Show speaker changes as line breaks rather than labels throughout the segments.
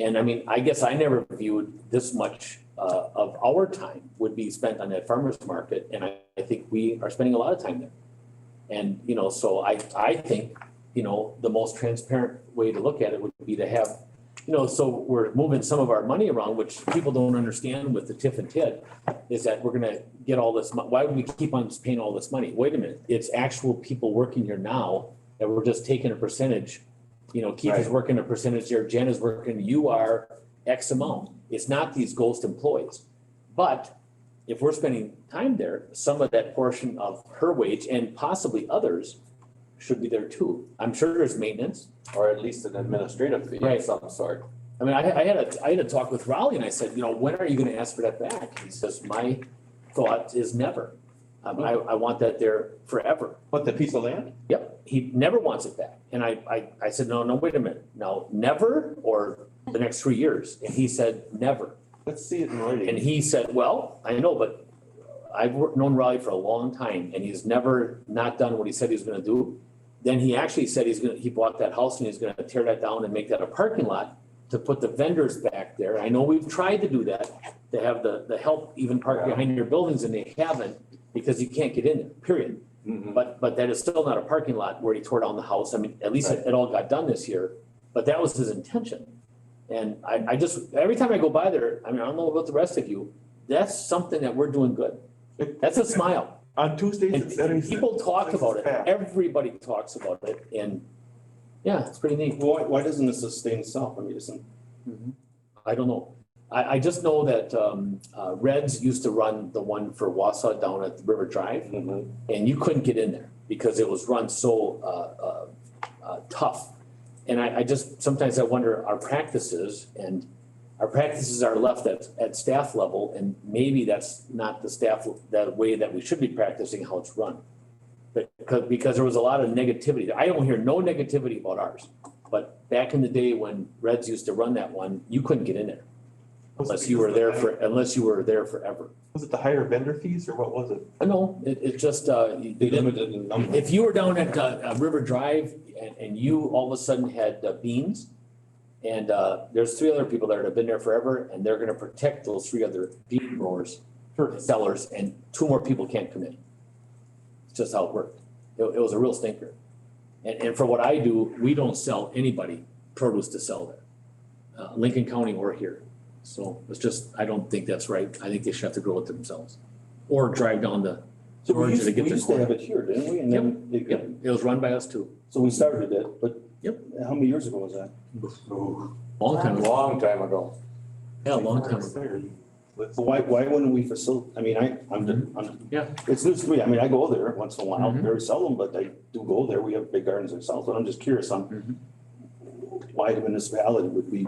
And I mean, I guess I never viewed this much uh of our time would be spent on that farmer's market, and I I think we are spending a lot of time there. And, you know, so I I think, you know, the most transparent way to look at it would be to have, you know, so we're moving some of our money around, which people don't understand with the TIF and TID, is that we're gonna get all this, mon- why would we keep on paying all this money? Wait a minute, it's actual people working here now that we're just taking a percentage. You know, Keith is
Right.
working a percentage there, Jen is working, you are X amount. It's not these ghost employees. But if we're spending time there, some of that portion of her wage and possibly others should be there too. I'm sure there's maintenance.
or at least an administrative fee
Right.
of some sort.
I mean, I, I had a, I had a talk with Raleigh and I said, you know, when are you gonna ask for that back? He says, my thought is never. Um, I, I want that there forever.
But the piece of land?
Yep, he never wants it back. And I, I, I said, no, no, wait a minute, no, never or the next three years? And he said, never.
Let's see it in
And
writing.
he said, well, I know, but I've wor- known Raleigh for a long time and he's never not done what he said he was gonna do. Then he actually said he's gonna, he bought that house and he's gonna tear that down and make that a parking lot to put the vendors back there. I know we've tried to do that, to have the, the help even park
Yeah.
behind your buildings and they haven't because you can't get in there, period.
Mm-hmm.
Mhm.
But, but that is still not a parking lot where he tore down the house. I mean, at least it, it all got done this year, but that was his intention. And I, I just, every time I go by there, I mean, I don't know about the rest of you, that's something that we're doing good. That's a smile.
On Tuesdays and
And
Saturdays.
people talk about it.
Saturdays.
Everybody talks about it and, yeah, it's pretty neat.
Why, why doesn't this sustain itself? I mean, isn't,
I don't know. I, I just know that, um, uh, Reds used to run the one for Wausau down at the River Drive.
Mhm.
and you couldn't get in there because it was run so uh, uh, uh, tough. And I, I just, sometimes I wonder, our practices and our practices are left at, at staff level and maybe that's not the staff, the way that we should be practicing how it's run. But, because, because there was a lot of negativity. I don't hear no negativity about ours. But back in the day when Reds used to run that one, you couldn't get in there
Was it
unless you
because
were
of
there
the
for,
higher-
unless you were there forever.
Was it the higher vendor fees or what was it?
I know, it, it just, uh, you-
they limited in number.
If you were down at uh, uh, River Drive and, and you all of a sudden had uh, beans, and uh, there's three other people there that have been there forever, and they're gonna protect those three other bean growers, sellers, and two more people can't come in. It's just how it worked. It, it was a real stinker. And, and for what I do, we don't sell anybody produce to sell there, uh, Lincoln County or here. So it's just, I don't think that's right. I think they should have to grow it themselves, or drive down the.
So we
Orange
used,
to get
we
the
used to
corn.
have it here, didn't we? And then it got-
Yep, it was run by us too.
So we started it, but.
Yep.
How many years ago was that?
Ooh,
Long time ago.
Long time ago.
Yeah, long time ago.
Let's-
So why, why wouldn't we facilitate, I mean, I, I'm, just- I'm.
Mm-hmm. Yeah.
It's news to me. I mean, I go there once in a while,
Mhm.
very seldom, but I do go there. We have big gardens ourselves, but I'm just curious on
Mhm. Mm-hmm.
why the municipality would be.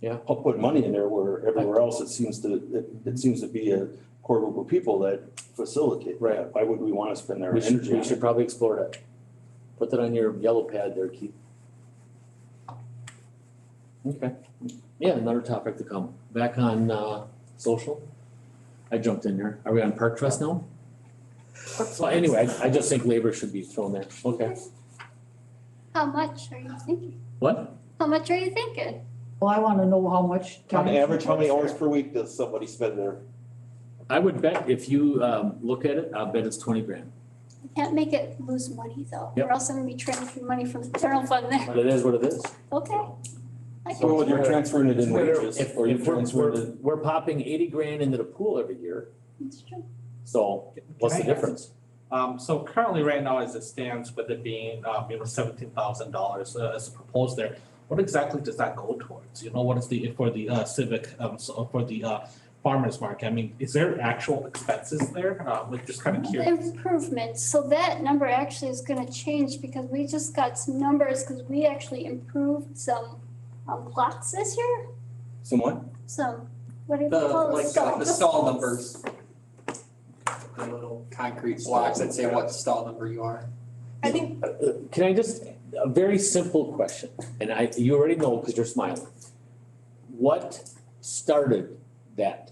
Yeah.
I'll put money in there where everywhere else it seems to, it, it seems to be a core group of people that facilitate.
Right.
Why would we want to spend our
We should,
energy on
we
it?
should probably explore that. Put that on your yellow pad there, Keith. Okay. Yeah, another topic to come. Back on, uh, social. I jumped in there. Are we on park trust now? So anyway, I, I just think labor should be thrown there. Okay.
How much are you thinking?
What?
How much are you thinking?
Well, I wanna know how much time.
On average, how many
she
hours
works
per week does somebody spend there?
I would bet if you, um, look at it, I'll bet it's twenty grand.
I can't make it lose money though,
Yep.
or else I'm gonna be transferring money from the general fund there.
But it is what it is.
Okay. I
So
can,
whether you're transferring it in
Whether-
wages
If,
or you're
if we're,
transferring
we're,
it.
we're popping eighty grand into the pool every year,
it's true.
so what's the
Can I ask-
difference?
Um, so currently, right now, as it stands, with it being, um, you know, seventeen thousand dollars, uh, as proposed there, what exactly does that go towards? You know, what is the, for the, uh, civic, um, so, for the, uh, farmer's market? I mean, is there actual expenses there? Uh, like, just kind of curious.
Improvements, so that number actually is gonna change because we just got some numbers, cause we actually improved some um lots this year,
Someone?
some, what do you
The,
call
like,
it?
uh, the stall numbers. The little concrete blocks that say what stall number you are.
I think,
Uh, Can I just, a very simple question, and I, you already know because you're smiling. What started that?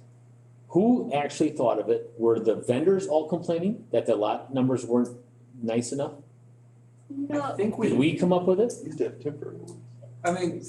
Who actually thought of it? Were the vendors all complaining that the lot numbers weren't nice enough?
No,
I think
Did
we,
we come up with it?
Used to have temporary.
I mean,